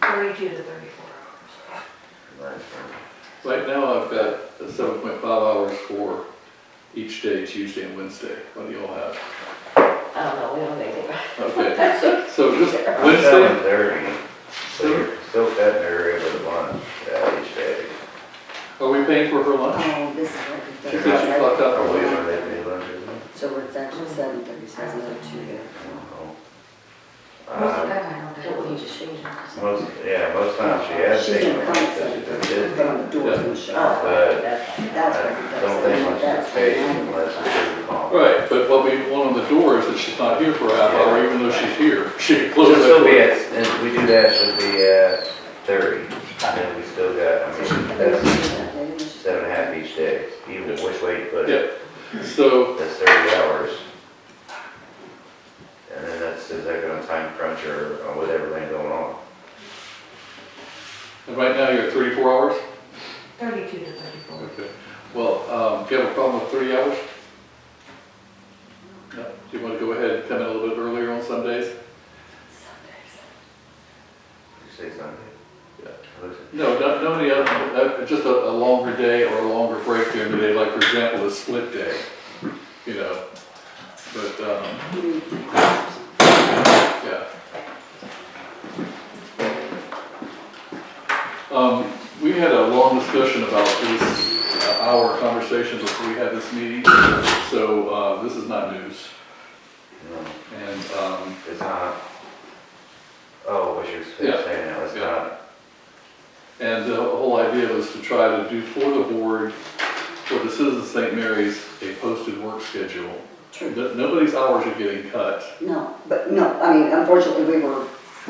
thirty-two to thirty-four hours. Right now, I've got seven point five hours for each day, Tuesday and Wednesday, what do you all have? I don't know, we don't need it. Okay, so just Seven Wednesday, thirty, so you're still cutting her rib with lunch, yeah, each day. are we paying for her lunch? Oh, this is what we've done. She said she clocked out Or for we lunch. don't have any lunch, is it? So it's actually seven thirty, so it's another two there. I don't know. Most of the Um, time, I don't know, we just change it. Most, yeah, most times she has She taken didn't it come at because seven she's been thirty, busy. but on the doors and shut off. But That's what we've I done. don't think much is paid unless it's a call. Right, but what we want on the door is that she's not here for a half hour, even though she's here, she can close She'll it. still be at, if we do that, she'll be at thirty, and then we still got, I mean, that's seven and a half each day, even which way you put it. Yeah, so, That's thirty hours. And then that's, is that gonna time crunch or or with everything going on? and right now, you're at thirty-four hours? Thirty-two to thirty-four. Okay, well, um, do you have a problem with three hours? No, do you want to go ahead and come in a little bit earlier on some days? Did you say Sunday? Yeah. Listen, No, not, no, any other, uh, just a, a longer day or a longer break during the day, like for example, a split day, you know? But, um, yeah. Um, we had a long discussion about this, uh, our conversation before we had this meeting, so, uh, this is not news. No, And, um, it's not. Oh, what you're Yeah. saying now, it's Yeah. not, and the whole idea was to try to do for the board, for the citizens of St. Mary's, a posted work schedule True. No- Nobody's hours are getting cut. No, but no, I mean, unfortunately, we were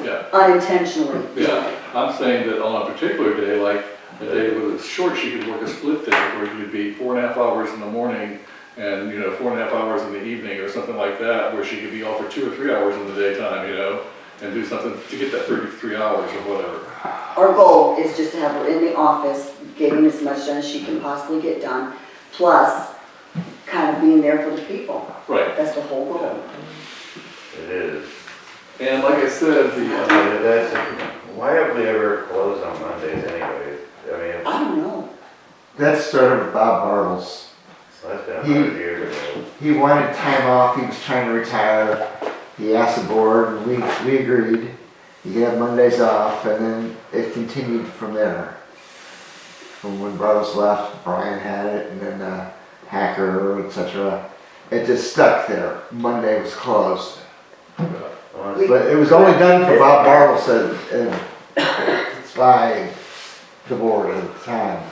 Yeah, unintentionally. yeah. I'm saying that on a particular day, like a day that was short, she could work a split day where it would be four and a half hours in the morning and, you know, four and a half hours in the evening or something like that, where she could be off for two or three hours in the daytime, you know, and do something to get that thirty-three hours or whatever. Our goal is just to have her in the office, getting as much done as she can possibly get done, plus kind of being there for the people. Right. That's the whole goal. it is. And like I said, the, But uh, That's, why have we ever closed on Mondays anyway? I mean, it's- I don't know. That started with Bob Bartles. that's been a hundred years ago. He wanted time off. He was trying to retire. He asked the board, and we, we agreed. He had Mondays off, and then it continued from there. From when Bartles left, Brian had it, and then uh, Hacker, etc. It just stuck there. Monday was closed, Honestly, but it was only done for Bob Bartles, and, and it's by the board at the time.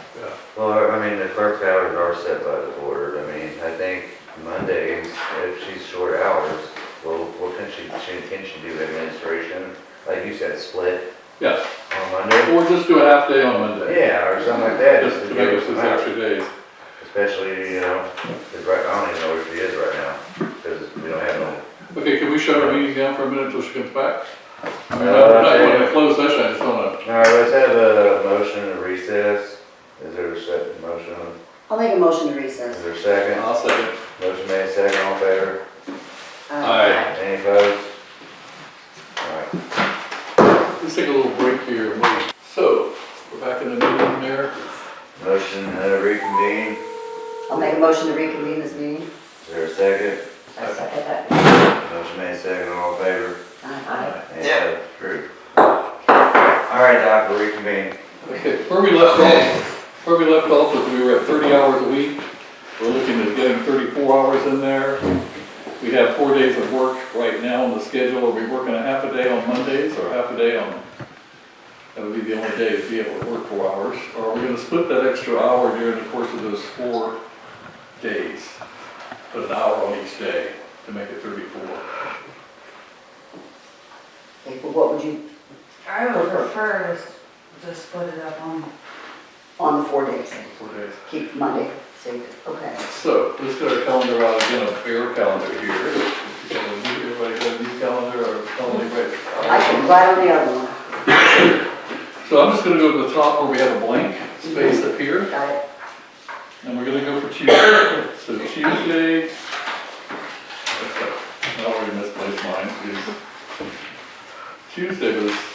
Well, I mean, the clerk's hours are set by the board, I mean, I think Mondays, if she's short hours, well, well, can she, she- can she do administration, like you said, split yeah, on Monday? or just do a half day on Monday. Yeah, or something like that, Just just to to make give up us those some hours. extra days. especially, you know, 'cause right, I don't even know where she is right now, because we don't have no Okay, can we shut our meeting down for a minute until she comes back? I Uh, mean, I'm not going to close session, I just want to, All right, let's have a motion to recess. Is there a second motion? I'll make a motion to Is recess. there a second? I'll second. Motion made, second, all in favor? Uh, All right, Any opposed? All right. let's take a little break here. and wait. So, we're back in the meeting there. Motion uh, reconvene. I'll make a motion to reconvene this meeting. Is there a second? I second that. Motion made, second, all in favor? Aye. Any opposed? Approved. All right, Doc, we reconvene. Okay, where we left off, where we left off was we were at thirty hours a week. We're looking at getting thirty-four hours in there. We have four days of work right now on the schedule. Are we working a half a day on Mondays or half a day on? That would be the only day to be able to work four hours. Or are we gonna split that extra hour during the course of those four days? Put an hour on each day to make it thirty-four. Okay, well, what would you, I would prefer to, s- to split it up on on the four days, Four days. keep Monday, safe, okay. So, let's get our calendar out again, a fair calendar here. Can we move Everybody got a new calendar or calendar break? I can glad on the other one, So I'm just gonna go to the top where we have a blank space up here, got it? and we're gonna go for Tuesday. So Tuesday. I already misplaced mine, geez. Tuesday was